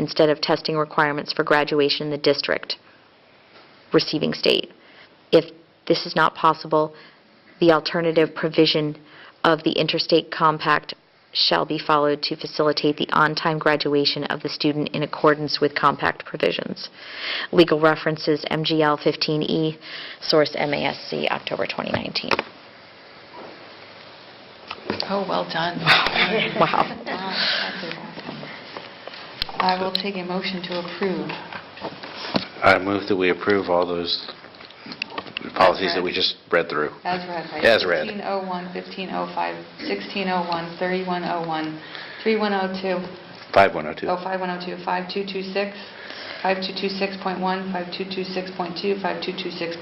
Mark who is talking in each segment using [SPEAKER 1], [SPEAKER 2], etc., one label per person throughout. [SPEAKER 1] instead of testing requirements for graduation in the district receiving state. If this is not possible, the alternative provision of the interstate compact shall be followed to facilitate the on-time graduation of the student in accordance with compact provisions. Legal references, MGL 15E, E, source MASC, October 2019.
[SPEAKER 2] Oh, well done.
[SPEAKER 1] Wow.
[SPEAKER 2] I will take a motion to approve.
[SPEAKER 3] I move that we approve all those policies that we
[SPEAKER 2] read.
[SPEAKER 3] just read through.
[SPEAKER 2] As read, oh right?
[SPEAKER 3] As read.
[SPEAKER 2] 1501, 1505, 1601, 3101, 3102, oh,
[SPEAKER 3] 5102.
[SPEAKER 2] 05102, 5226, 5226.1, 5226.2,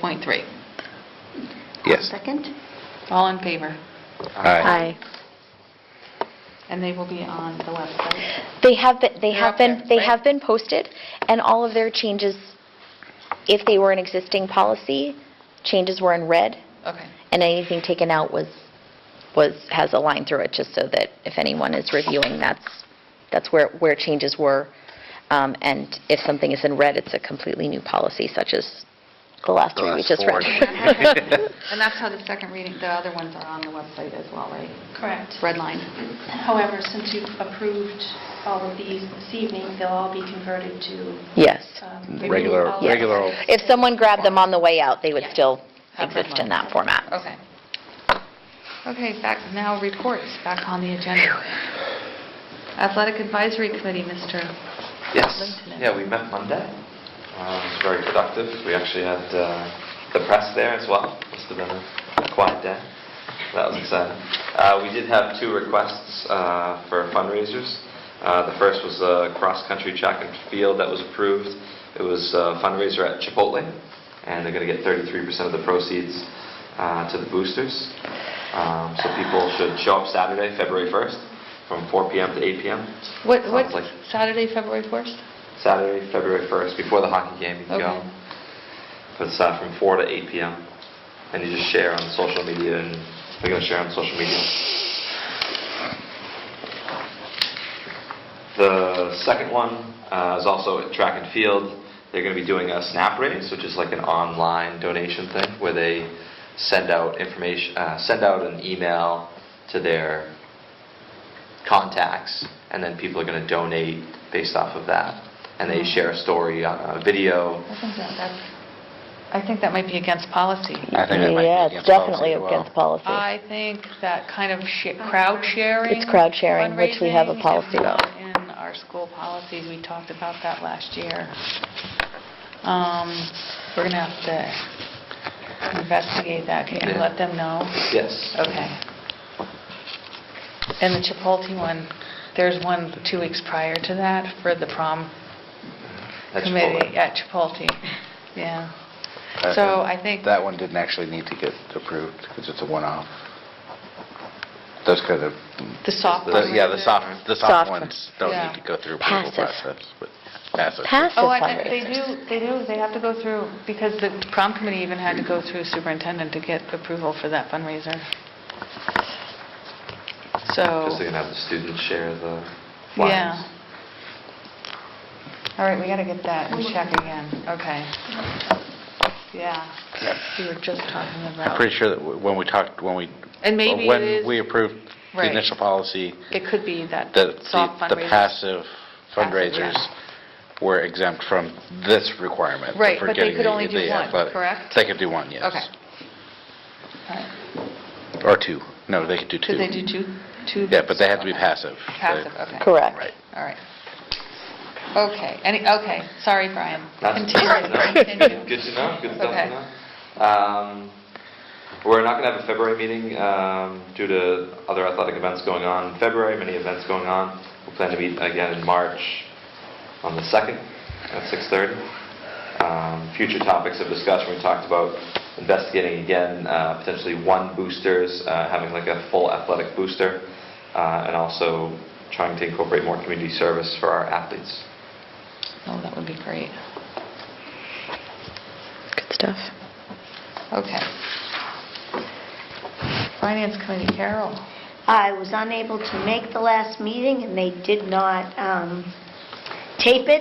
[SPEAKER 2] 5226.3.
[SPEAKER 3] Yes.
[SPEAKER 4] Second?
[SPEAKER 2] All in favor?
[SPEAKER 3] Aye.
[SPEAKER 1] Aye.
[SPEAKER 2] And they will be on the website.
[SPEAKER 1] They have been, they
[SPEAKER 2] They're
[SPEAKER 1] have
[SPEAKER 2] up
[SPEAKER 1] been,
[SPEAKER 2] there,
[SPEAKER 1] they
[SPEAKER 2] right?
[SPEAKER 1] have been posted, and all of their changes, if they were an existing policy, changes were in red,
[SPEAKER 2] Okay.
[SPEAKER 1] and anything taken out was, was, has a line through it, just so that if anyone is reviewing, that's, that's where, where changes were. Um, And if something is in red, it's a completely new policy, such as the last
[SPEAKER 3] The
[SPEAKER 1] three we
[SPEAKER 3] last
[SPEAKER 1] just
[SPEAKER 3] four
[SPEAKER 1] read.
[SPEAKER 3] that we read.
[SPEAKER 2] And that's how the second reading, the other ones are on the website as well, right?
[SPEAKER 5] Correct.
[SPEAKER 2] It's redlined.
[SPEAKER 5] However, since you've approved all of these this evening, they'll all be converted to...
[SPEAKER 1] Yes.
[SPEAKER 5] um,
[SPEAKER 3] Regular,
[SPEAKER 5] all of
[SPEAKER 1] Yes.
[SPEAKER 3] regular old.
[SPEAKER 1] If someone grabbed them on the way out, they would
[SPEAKER 5] Yeah.
[SPEAKER 1] still
[SPEAKER 2] Have that
[SPEAKER 1] exist in
[SPEAKER 2] one.
[SPEAKER 1] that format.
[SPEAKER 2] Okay. Okay, back, now reports, back on the agenda. Athletic Advisory Committee, Mr.
[SPEAKER 6] Yes,
[SPEAKER 2] Lieutenant.
[SPEAKER 6] yeah, we met Monday. Uh, It was very productive. We actually had uh, the press there as well. Must have been a a quiet day. That was exciting. Uh, We did have two requests uh, for fundraisers. Uh, The first was a cross-country track and field that was approved. It was a fundraiser at Chipotle, and they're going to get 33% of the proceeds uh, to the boosters. Um, So people should show up Saturday, February 1st, from 4 PM to 8 PM.
[SPEAKER 2] What, what,
[SPEAKER 6] Sounds like-
[SPEAKER 2] Saturday, February 1st?
[SPEAKER 6] Saturday, February 1st, before the hockey game, you can go.
[SPEAKER 2] Okay.
[SPEAKER 6] But it's uh, from 4 to 8 p.m. And you just share on social media, and we're going to share on social media. The second one uh, is also at track and field. They're going to be doing a snap raise, which is like an online donation thing where they send out information, uh, send out an email to their contacts, and then people are going to donate based off of that. And
[SPEAKER 2] Mm-hmm.
[SPEAKER 6] they share a story on a video.
[SPEAKER 2] I think that- that's- I think that might be against policy.
[SPEAKER 3] I think that might be
[SPEAKER 1] Yeah,
[SPEAKER 3] against
[SPEAKER 1] it's definitely
[SPEAKER 3] policy as well.
[SPEAKER 1] against policy.
[SPEAKER 2] I think that kind of sh- crowd sharing.
[SPEAKER 1] It's crowd sharing, which we have a
[SPEAKER 2] fundraising is
[SPEAKER 1] policy about.
[SPEAKER 2] not In our school policies, we talked about that last year. Um, We're going to have to investigate that. Can you
[SPEAKER 6] Yeah.
[SPEAKER 2] let them know?
[SPEAKER 6] Yes.
[SPEAKER 2] Okay. And the Chipotle one, there's one two weeks prior to that for the prom
[SPEAKER 6] At Chipotle.
[SPEAKER 2] committee at Chipotle. Yeah.
[SPEAKER 3] Uh,
[SPEAKER 2] So I think,
[SPEAKER 3] That one didn't actually need to get approved because it's a one-off. Those kind of,
[SPEAKER 2] the soft one.
[SPEAKER 3] yeah, the soft, the soft
[SPEAKER 1] Soft.
[SPEAKER 3] ones don't
[SPEAKER 2] Yeah.
[SPEAKER 3] need to go through approval
[SPEAKER 1] Passive.
[SPEAKER 3] process. but Passive.
[SPEAKER 1] Passive
[SPEAKER 2] Oh, I think they
[SPEAKER 1] fundraisers.
[SPEAKER 2] do, they do, they have to go through, because the prom committee even had to go through superintendent to get approval for that fundraiser. So,
[SPEAKER 6] Because they're going to have the students share the flyers.
[SPEAKER 2] yeah. All right, we got to get that in check again. Okay. Yeah, we were just talking
[SPEAKER 3] I'm
[SPEAKER 2] about,
[SPEAKER 3] pretty sure that w- when we talked, when we.
[SPEAKER 2] And maybe it is-
[SPEAKER 3] When we approved the
[SPEAKER 2] Right.
[SPEAKER 3] initial policy,
[SPEAKER 2] it could be that
[SPEAKER 3] the,
[SPEAKER 2] soft
[SPEAKER 3] the- the
[SPEAKER 2] fundraiser.
[SPEAKER 3] passive
[SPEAKER 2] Passive,
[SPEAKER 3] fundraisers were exempt from this requirement.
[SPEAKER 2] Right,
[SPEAKER 3] for
[SPEAKER 2] but they
[SPEAKER 3] getting
[SPEAKER 2] could
[SPEAKER 3] the-
[SPEAKER 2] only do
[SPEAKER 3] the
[SPEAKER 2] one,
[SPEAKER 3] athletic-
[SPEAKER 2] correct?
[SPEAKER 3] They could do one, yes.
[SPEAKER 2] Okay. All right.
[SPEAKER 3] Or two. No, they could do two.
[SPEAKER 2] Could they do two? two
[SPEAKER 3] Yeah, but they have to be
[SPEAKER 2] Okay.
[SPEAKER 3] passive.
[SPEAKER 2] Passive, okay.
[SPEAKER 1] Correct.
[SPEAKER 3] Right.
[SPEAKER 2] All right. Okay, any, okay, sorry, Brian.
[SPEAKER 6] That's
[SPEAKER 2] Continue. Continue.
[SPEAKER 6] Good to know, good stuff
[SPEAKER 2] Okay.
[SPEAKER 6] to know. Um, We're not going to have a February meeting um, due to other athletic events going on in February, many events going on. We plan to meet again in March on the 2nd at 6:30. Um, Future topics of discussion, we talked about investigating again, uh, potentially one boosters, uh, having like a full athletic booster, uh, and also trying to incorporate more community service for our athletes.
[SPEAKER 2] Oh, that would be great.
[SPEAKER 1] Good stuff.
[SPEAKER 2] Okay. Finance Committee, Carol.
[SPEAKER 4] I was unable to make the last meeting, and they did not um, tape it